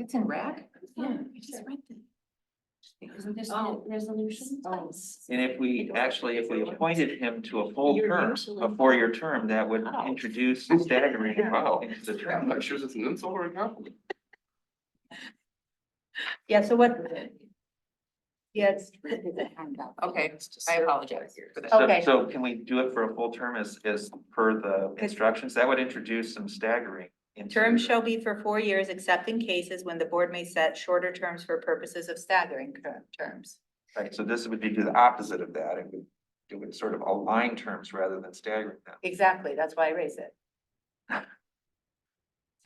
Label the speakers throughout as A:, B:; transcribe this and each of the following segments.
A: It's in rag?
B: Yeah,
A: I just read that. Isn't this
B: Oh.
A: the resolution?
B: Oh.
C: And if we, actually, if we appointed him to a full
A: You're
C: term,
A: usually-
C: a four-year term, that would
A: Oh.
C: introduce staggering
D: Wow.
C: into the
D: I'm
C: term.
D: not sure if it's an insult or a compliment.
A: Yeah, so what? Yes.
B: Okay, I apologize for that.
C: So,
A: Okay.
C: so can we do it for a full term as, as per the instructions? That would introduce some staggering. into-
E: Term shall be for four years, except in cases when the board may set shorter terms for purposes of staggering cur- terms.
C: Right, so this would be the opposite of that. It would, it would sort of align terms rather than staggering them.
E: Exactly, that's why I raise it.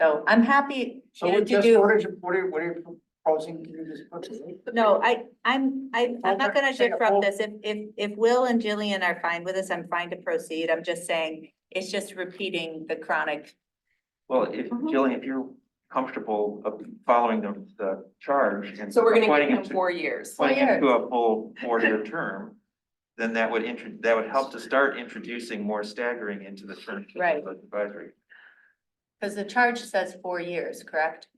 E: So I'm happy you know, to
F: what
E: do,
F: are you, what are, what are you proposing to do this? put?
E: no, I, I'm, I, I'm not gonna
F: Say
E: shift from
F: all-
E: this. If, if, if Will and Jillian are fine with this, I'm fine to proceed. I'm just saying, it's just repeating the chronic.
C: Well, if,
B: Mm-hmm.
A: Mhm.
C: Jillian, if you're comfortable of following the, the charge and.
B: So we're gonna
C: appointing
B: give him
C: to-
B: four years.
C: appointing him to a full four-year term, then that would intro, that would help to start introducing more staggering into the term. of
E: Right.
C: the Advisory.
E: Because the charge says four years, correct?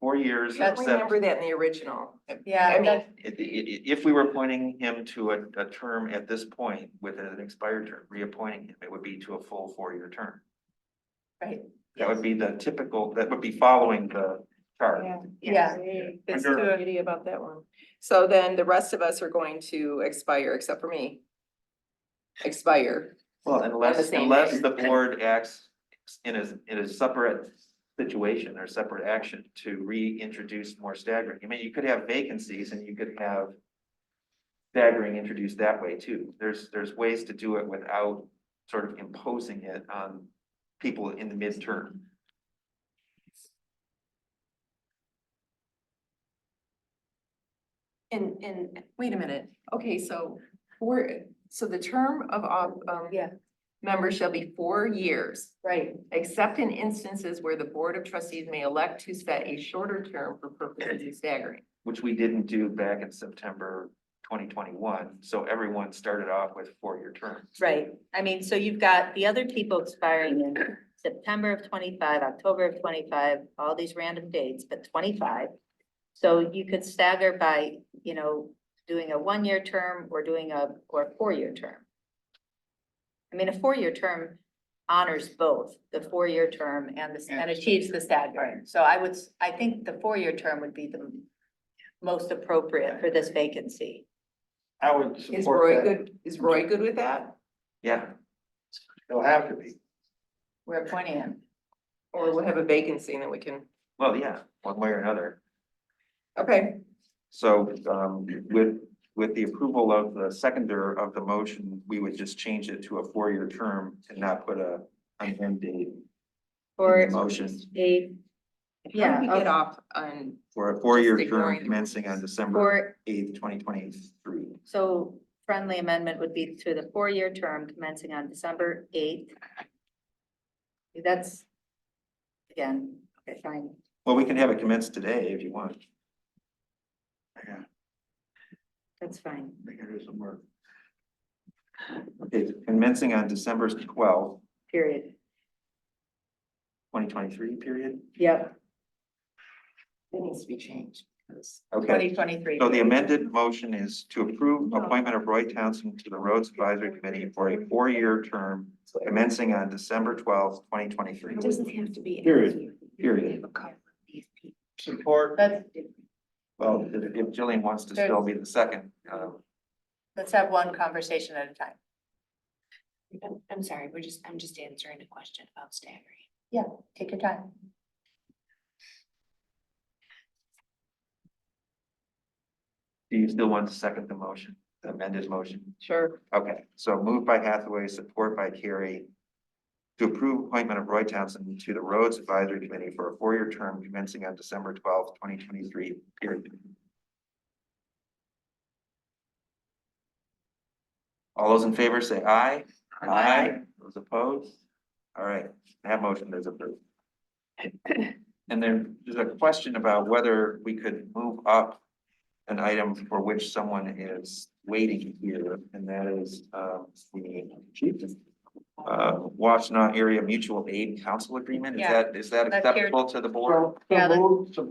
C: Four years,
B: I
E: That's-
C: except
B: remember that in the original. I
E: Yeah,
B: mean,
E: that's,
C: i- i- i- if we were appointing him to a, a term at this point with an expired term, reappointing him, it would be to a full four-year term.
E: right,
C: That would be the typical, that would be following the charge.
E: yeah.
B: There's
C: Under-
B: no beauty about that one. So then the rest of us are going to expire, except for me. Expire.
C: Well,
B: the
C: unless,
B: same
C: unless
B: day.
C: the board acts in a, in a separate situation or separate action to reintroduce more staggering. I mean, you could have vacancies and you could have staggering introduced that way too. There's, there's ways to do it without sort of imposing it on people in the midterm.
A: And, and,
B: Wait a minute. Okay, so we're, so the term of, of, um,
E: Yeah.
B: member shall be four years.
E: Right.
B: except in instances where the Board of Trustees may elect to set a shorter term for purposes of staggering.
C: which we didn't do back in September twenty twenty-one. So everyone started off with four-year terms.
E: Right, I mean, so you've got the other people expiring in September of twenty-five, October of twenty-five, all these random dates, but twenty-five. So you could stagger by, you know, doing a one-year term or doing a, or a four-year term. I mean, a four-year term honors both the four-year term and the, and achieves the staggering. So I would, s- I think the four-year term would be the most appropriate for this vacancy.
D: I would
B: Is Roy good, is Roy good with that?
C: Yeah,
D: It'll have to be.
E: We're appointing him.
B: Or we'll have a vacancy and then we can,
C: well, yeah, one way or another.
B: okay,
C: So um with with the approval of the seconder of the motion, we would just change it to a four-year term and not put a an end date
E: Or.
C: in the motion
E: a,
B: how do we
E: Yeah,
B: get
E: okay.
B: off on,
C: for a four-year
B: Just
C: term
B: ignoring the-
C: commencing on December
E: four,
C: eighth, twenty twenty-three.
E: so friendly amendment would be to the four-year term commencing on December eighth. That's, again, okay, fine.
C: Well, we can have it commence today if you want.
E: that's fine.
C: I can do some work. Okay, commencing on December twelfth,
E: Period.
C: twenty twenty-three period.
E: Yep.
B: that needs to be changed. 'cause-
C: Okay,
E: Twenty twenty-three.
C: so the amended motion is to approve appointment of Roy Townsend to the Roads Advisory Committee for a four-year term commencing on December twelfth, twenty twenty-three.
A: it doesn't have to be.
C: Period.
A: You
C: Period.
A: have a couple of these people.
D: Support.
E: Let's,
C: Well, if if Jillian wants to still be the second, uh,
E: let's have one conversation at a time.
A: I'm, I'm sorry, we're just, I'm just answering a question about staggering.
E: Take your time.
C: do you still want to second the motion, the amended motion?
B: Sure,
C: Okay, so moved by Hathaway, support by Carrie. To approve appointment of Roy Townsend to the Roads Advisory Committee for a four-year term commencing on December twelfth, twenty twenty-three, period. All those in favor say aye. Those opposed? All right, that motion is approved. And then there's a question about whether we could move up an item for which someone is waiting here, and that is, um, the uh, Washtenaw Area Mutual Aid Council Agreement, is
E: Yeah.
C: that, is that
E: That's here.
C: acceptable to the board?
D: So,
E: Yeah,
D: so
E: let's-
D: moved, support.